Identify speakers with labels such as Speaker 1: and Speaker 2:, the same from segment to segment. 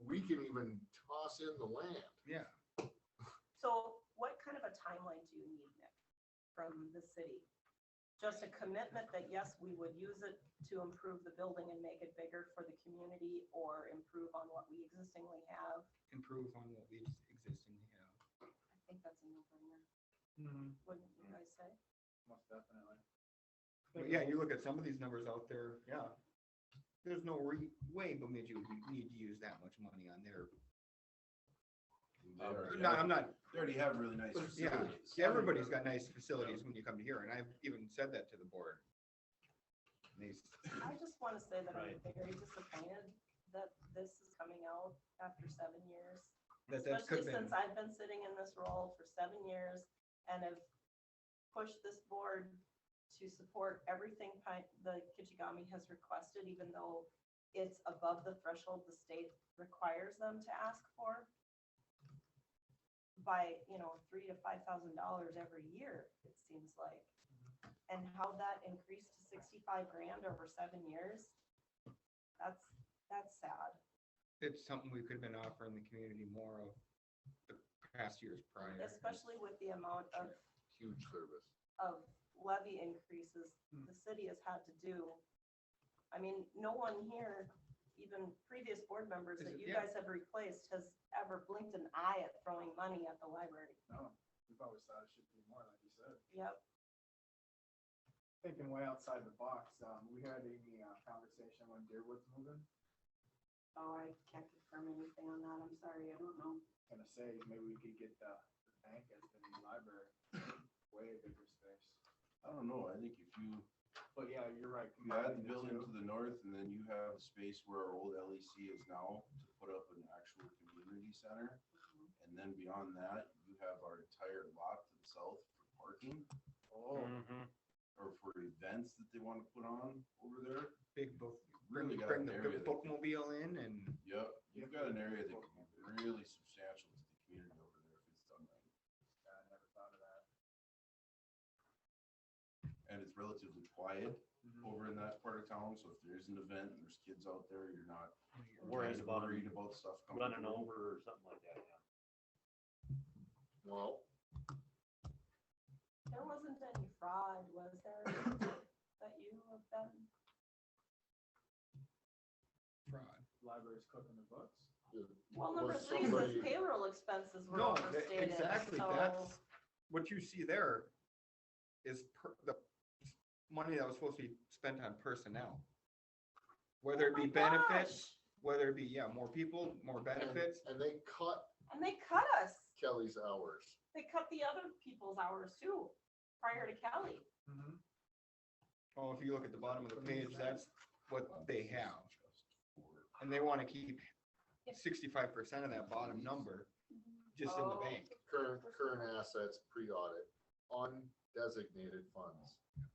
Speaker 1: can even toss in the land.
Speaker 2: Yeah,
Speaker 3: So what kind of a timeline do you need, Nick, from the city? Just a commitment that yes, we would use it to improve the building and make it bigger for the community or improve on what we existingly have?
Speaker 2: improve on what we existing have.
Speaker 3: I think that's a no-brainer, wouldn't you guys say?
Speaker 4: Most definitely.
Speaker 2: But yeah, you look at some of these numbers out there, yeah. There's no re- way Bemidji would need to use that much money on their,
Speaker 4: Um,
Speaker 2: no, I'm not,
Speaker 4: They already have really nice
Speaker 1: Yeah.
Speaker 4: facilities.
Speaker 2: everybody's got nice facilities when you come here, and I've even said that to the board. And They, s-
Speaker 3: I just want to say that I'm
Speaker 4: Right.
Speaker 3: very disappointed that this is coming out after seven years.
Speaker 2: that, that could
Speaker 3: Especially
Speaker 2: have been,
Speaker 3: since I've been sitting in this role for seven years and have pushed this board to support everything Pi- the Kichigami has requested, even though it's above the threshold the state requires them to ask for by, you know, three to five thousand dollars every year, it seems like. And how that increased to sixty-five grand over seven years, that's, that's sad.
Speaker 2: it's something we could have been offering the community more of the past years prior.
Speaker 3: Especially with the amount of
Speaker 1: Huge service.
Speaker 3: of levy increases
Speaker 2: Hmm.
Speaker 3: the city has had to do. I mean, no one here, even previous board members that
Speaker 2: Is it-
Speaker 3: you
Speaker 2: yeah.
Speaker 3: guys have replaced has ever blinked an eye at throwing money at the library.
Speaker 4: No, we've always thought it should be more, like you said.
Speaker 3: Yep,
Speaker 4: Thinking way outside the box, um, we had a, uh, conversation when Deerwood's moving,
Speaker 3: oh, I can't confirm anything on that, I'm sorry, I don't know.
Speaker 4: gonna say, maybe we could get the, the bank as the new library, way bigger space.
Speaker 5: I don't know, I think if you,
Speaker 4: But yeah, you're right.
Speaker 5: you add the
Speaker 4: combining
Speaker 5: building
Speaker 4: two.
Speaker 5: to the north and then you have space where our old LEC is now to put up an actual community center. And then beyond that, you have our entire lot to the south for parking
Speaker 4: Oh,
Speaker 5: or for events that they wanna put on over there.
Speaker 2: Big book, bring,
Speaker 5: Really got
Speaker 2: bring
Speaker 5: an
Speaker 2: the
Speaker 5: area that,
Speaker 2: big bookmobile in and
Speaker 5: yep, you've got an area that can be really substantial to the community over there if it's done right.
Speaker 4: yeah, I never thought of that.
Speaker 5: And it's relatively quiet over in that part of town, so if there is an event and there's kids out there, you're not
Speaker 6: Worried
Speaker 5: kind of
Speaker 6: about 'em
Speaker 5: Worried about stuff coming.
Speaker 6: running
Speaker 5: through.
Speaker 6: over or something like that, yeah.
Speaker 1: Well,
Speaker 3: There wasn't any fraud, was there, that you have been?
Speaker 2: fraud.
Speaker 4: Library's cooking the books.
Speaker 1: it
Speaker 3: Well,
Speaker 1: was
Speaker 3: number three
Speaker 1: somebody-
Speaker 3: says payroll expenses were
Speaker 2: No, that-
Speaker 3: overstated,
Speaker 2: exactly,
Speaker 3: so.
Speaker 2: that's, what you see there is per, the money that was supposed to be spent on personnel. Whether it
Speaker 3: Oh
Speaker 2: be
Speaker 3: my gosh.
Speaker 2: benefits, whether it be, yeah, more people, more
Speaker 1: And
Speaker 2: benefits,
Speaker 1: and they cut
Speaker 3: And they cut us,
Speaker 1: Kelly's hours.
Speaker 3: they cut the other people's hours too, prior to Kelly.
Speaker 4: Mm-hmm.
Speaker 2: oh, if you look at the bottom of the page, that's what they have,
Speaker 5: For-
Speaker 2: and they wanna keep sixty-five percent of that bottom number just in the
Speaker 3: Oh.
Speaker 2: bank.
Speaker 1: Current, current assets, pre-audit, undesignated funds,
Speaker 3: Two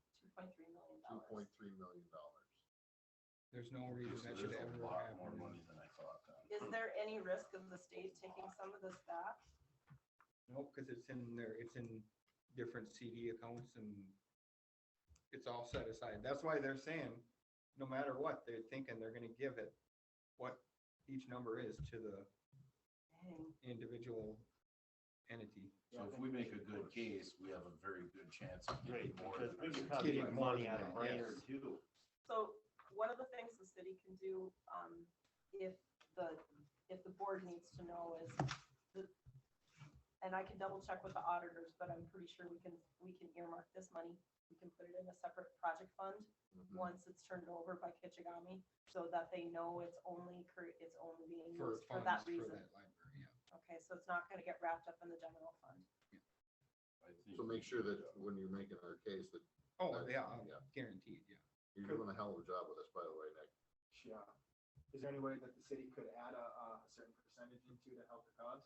Speaker 3: point three million
Speaker 1: two
Speaker 3: dollars.
Speaker 1: point three million dollars.
Speaker 2: There's no reason
Speaker 5: So
Speaker 2: that
Speaker 5: There's
Speaker 2: should
Speaker 5: a
Speaker 2: ever
Speaker 5: lot more
Speaker 2: happen.
Speaker 5: money than I thought then.
Speaker 3: Is there any risk of the state taking some of this back?
Speaker 2: Nope, cause it's in there, it's in different CD accounts and it's all set aside. That's why they're saying, no matter what, they're thinking they're gonna give it what each number is to the
Speaker 3: Dang,
Speaker 2: individual entity.
Speaker 5: So if we make a good case, we have a very good chance of
Speaker 6: Right,
Speaker 5: getting more.
Speaker 6: because we
Speaker 5: than
Speaker 6: could
Speaker 5: our
Speaker 6: probably
Speaker 2: Getting
Speaker 6: get
Speaker 2: more
Speaker 6: money
Speaker 2: than
Speaker 6: out of
Speaker 2: that,
Speaker 6: Brainerd
Speaker 2: yes.
Speaker 6: too.
Speaker 3: So one of the things the city can do, um, if the, if the board needs to know is the, and I can double check with the auditors, but I'm pretty sure we can, we can earmark this money. We can put it in a separate project fund
Speaker 1: Mhm.
Speaker 2: Mm-hmm.
Speaker 3: once it's turned over by Kichigami so that they know it's only, cur- it's only being
Speaker 2: For
Speaker 3: used for
Speaker 2: funds
Speaker 3: that
Speaker 2: for
Speaker 3: reason.
Speaker 2: that library, yeah.
Speaker 3: Okay, so it's not gonna get wrapped up in the general fund.
Speaker 5: I think
Speaker 1: So make sure that when you're making our case that
Speaker 2: Oh, yeah, I'm
Speaker 1: Yeah.
Speaker 2: guaranteed, yeah.
Speaker 1: you're doing a hell of a job with us, by the way, Nick.
Speaker 4: Yeah. Is there any way that the city could add a, a certain percentage into to help the cause?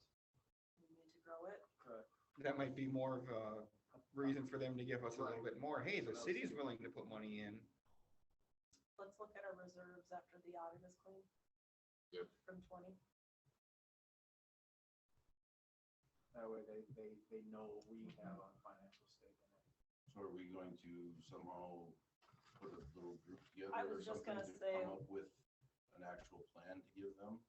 Speaker 3: We need to grow it.
Speaker 4: Correct.
Speaker 2: That might be more of a reason for them to give us a little bit more. Hey, the city's willing to put money in.
Speaker 3: Let's look at our reserves after the audit is clean.
Speaker 1: Yep.
Speaker 3: From twenty.
Speaker 4: That way they, they, they know we have a financial stake in it.
Speaker 5: So are we going to somehow put a little group together?
Speaker 3: I was
Speaker 5: or
Speaker 3: just gonna
Speaker 5: something to
Speaker 3: say-
Speaker 5: Come up with an actual plan to give them?